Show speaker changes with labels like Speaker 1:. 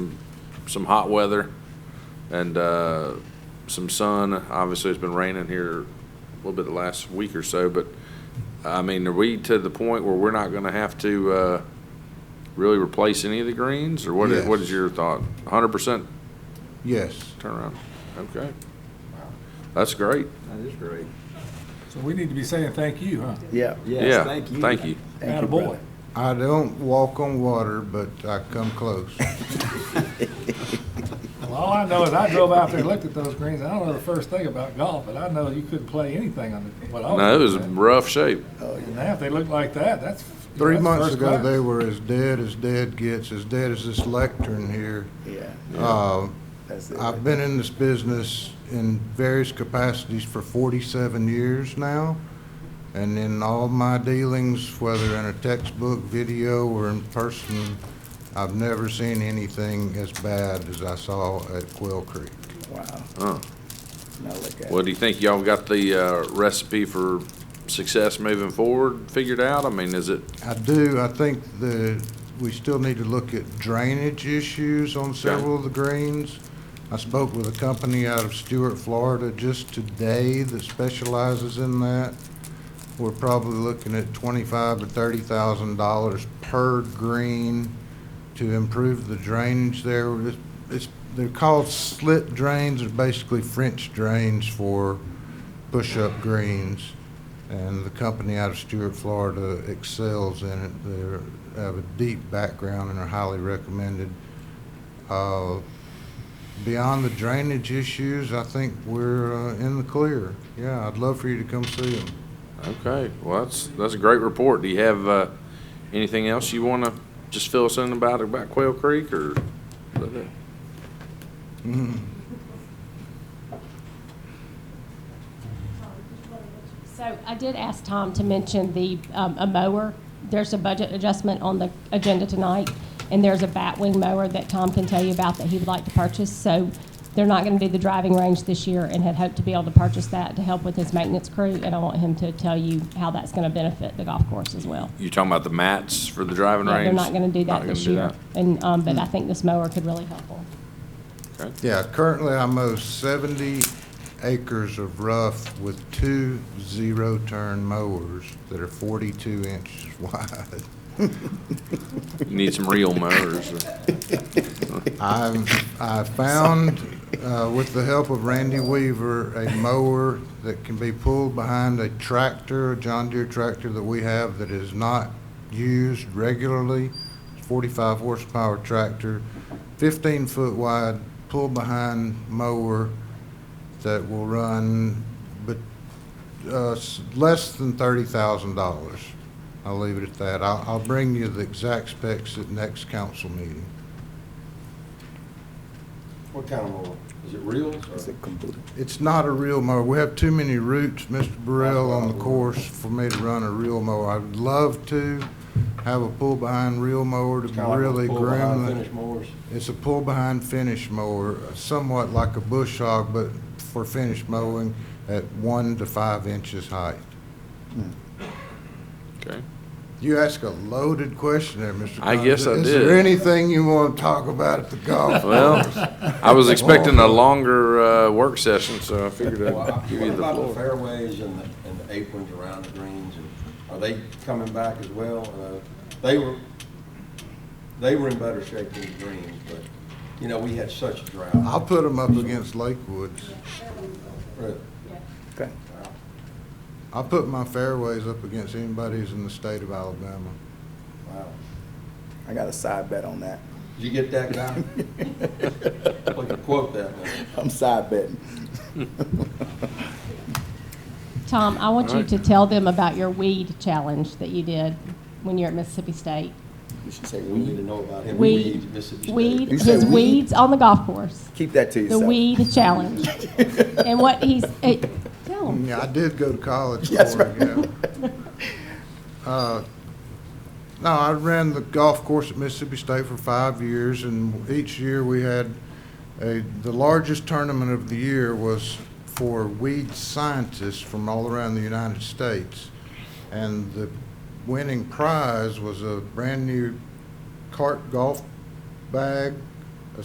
Speaker 1: some hot weather and uh, some sun. Obviously, it's been raining here a little bit the last week or so, but I mean, are we to the point where we're not going to have to uh, really replace any of the greens, or what? i- What
Speaker 2: Yes.
Speaker 1: is your thought? 100%
Speaker 2: Yes.
Speaker 1: turnaround. Okay, that's great.
Speaker 3: That is great.
Speaker 4: So we need to be saying thank you, huh?
Speaker 3: Yeah.
Speaker 1: yeah,
Speaker 3: Yes, thank you.
Speaker 1: Thank you.
Speaker 3: Thank you,
Speaker 4: Attaboy.
Speaker 3: brother.
Speaker 2: I don't walk on water, but I come close.
Speaker 4: Well, all I know is I drove out there and looked at those greens. I don't know the first thing about golf, but I know you couldn't play anything on the, what I was.
Speaker 1: No, it was
Speaker 4: looking
Speaker 1: rough shape.
Speaker 3: Oh,
Speaker 4: at.
Speaker 3: yeah.
Speaker 4: And Now, if they look like that, that's. you know,
Speaker 2: Three
Speaker 4: that's
Speaker 2: months
Speaker 4: first
Speaker 2: ago,
Speaker 4: class.
Speaker 2: they were as dead as dead gets, as dead as this lectern here.
Speaker 3: Yeah,
Speaker 2: Uh,
Speaker 3: that's it.
Speaker 2: I've been in this business in various capacities for 47 years now, and in all my dealings, whether in a textbook, video, or in person, I've never seen anything as bad as I saw at Quail Creek.
Speaker 3: Wow.
Speaker 1: Huh.
Speaker 3: Now look at
Speaker 1: Well,
Speaker 3: it.
Speaker 1: do you think y'all got the uh, recipe for success moving forward figured out? I mean, is it
Speaker 2: I do, I think the, we still need to look at drainage issues on several of the greens. I spoke with a company out of Stewart, Florida just today that specializes in that. We're probably looking at twenty-five to thirty thousand dollars per green to improve the drainage there. It's- It's, they're called slit drains, they're basically French drains for push-up greens. And the company out of Stewart, Florida excels in it. They have a deep background and are highly recommended. Uh, Beyond the drainage issues, I think we're uh, in the clear. Yeah, I'd love for you to come see them.
Speaker 1: okay? Well, that's that's a great report. Do you have uh, anything else you want to just fill us in about about Quail Creek or?
Speaker 5: So I did ask Tom to mention the, um, a mower. There's a budget adjustment on the agenda tonight, and there's a batwing mower that Tom can tell you about that he would like to purchase. So they're not going to do the driving range this year and had hoped to be able to purchase that to help with his maintenance crew. And I want him to tell you how that's going to benefit the golf course as well.
Speaker 1: You talking about the mats for the driving
Speaker 5: Yeah,
Speaker 1: range?
Speaker 5: They're not going to do
Speaker 1: Not
Speaker 5: that
Speaker 1: gonna
Speaker 5: this
Speaker 1: do
Speaker 5: year. And, um, but I think this mower could really help them.
Speaker 2: Yeah, currently I mow 70 acres of rough with two zero-turn mowers that are 42 inches wide.
Speaker 1: that. You need some real mowers.
Speaker 2: I, I found, uh, with the help of Randy Weaver, a mower that can be pulled behind a tractor, a John Deere tractor that we have that is not used regularly. It's Forty-five horsepower tractor, fifteen foot wide, pull behind mower that will run, but, uh, s- less than thirty thousand dollars. I'll leave it at that. I'll, I'll bring you the exact specs at next council meeting.
Speaker 6: What kind of mower? Is it reels
Speaker 3: It's
Speaker 6: or?
Speaker 3: a computer.
Speaker 2: It's not a real mower. We have too many roots, Mr. Burrell, on the course for me to run a real mower. I'd love to have a pull-behind real mower to
Speaker 6: It's kinda like
Speaker 2: really
Speaker 6: those full-behind
Speaker 2: groom
Speaker 6: Finish mowers.
Speaker 2: the. It's a pull-behind finish mower, somewhat like a bush hog, but for finish mowing at one to five inches height.
Speaker 1: Okay.
Speaker 2: You asked a loaded question there, Mr.
Speaker 1: I guess I
Speaker 2: Cobb. Is
Speaker 1: did.
Speaker 2: there anything you want to talk about at the golf
Speaker 1: Well,
Speaker 2: course?
Speaker 1: I was expecting a longer uh, work session, so I figured
Speaker 6: Well, I-
Speaker 1: I'd give
Speaker 6: What
Speaker 1: you the
Speaker 6: about the
Speaker 1: floor.
Speaker 6: fairways and the, and the aprons around the greens? and Are they coming back as well? Uh, They were, they were in better shape than the greens, but, you know, we had such a drought.
Speaker 2: I'll put them up against Lakewoods.
Speaker 6: Really.
Speaker 3: Okay.
Speaker 2: I'll put my fairways up against anybody's in the state of Alabama.
Speaker 6: Wow.
Speaker 3: I got a side bet on that.
Speaker 6: Did you get that guy? Look, you quote that man.
Speaker 3: I'm side betting.
Speaker 5: Tom, I want you
Speaker 1: Alright.
Speaker 5: to tell them about your weed challenge that you did when you were at Mississippi State.
Speaker 3: You should say
Speaker 6: We need to
Speaker 3: weed.
Speaker 6: know about him.
Speaker 5: Weed,
Speaker 6: Mississippi State.
Speaker 5: weed,
Speaker 3: You said
Speaker 5: his
Speaker 3: weed?
Speaker 5: weeds on the golf course,
Speaker 3: Keep that to
Speaker 5: the
Speaker 3: yourself.
Speaker 5: weed challenge. And what he's, eh, tell him.
Speaker 2: Yeah, I did go to college for
Speaker 3: That's
Speaker 2: it, yeah. Uh, No, I ran the golf course at Mississippi State for five years, and each year we had a, the largest tournament of the year was for weed scientists from all around the United States. And the winning prize was a brand-new cart golf bag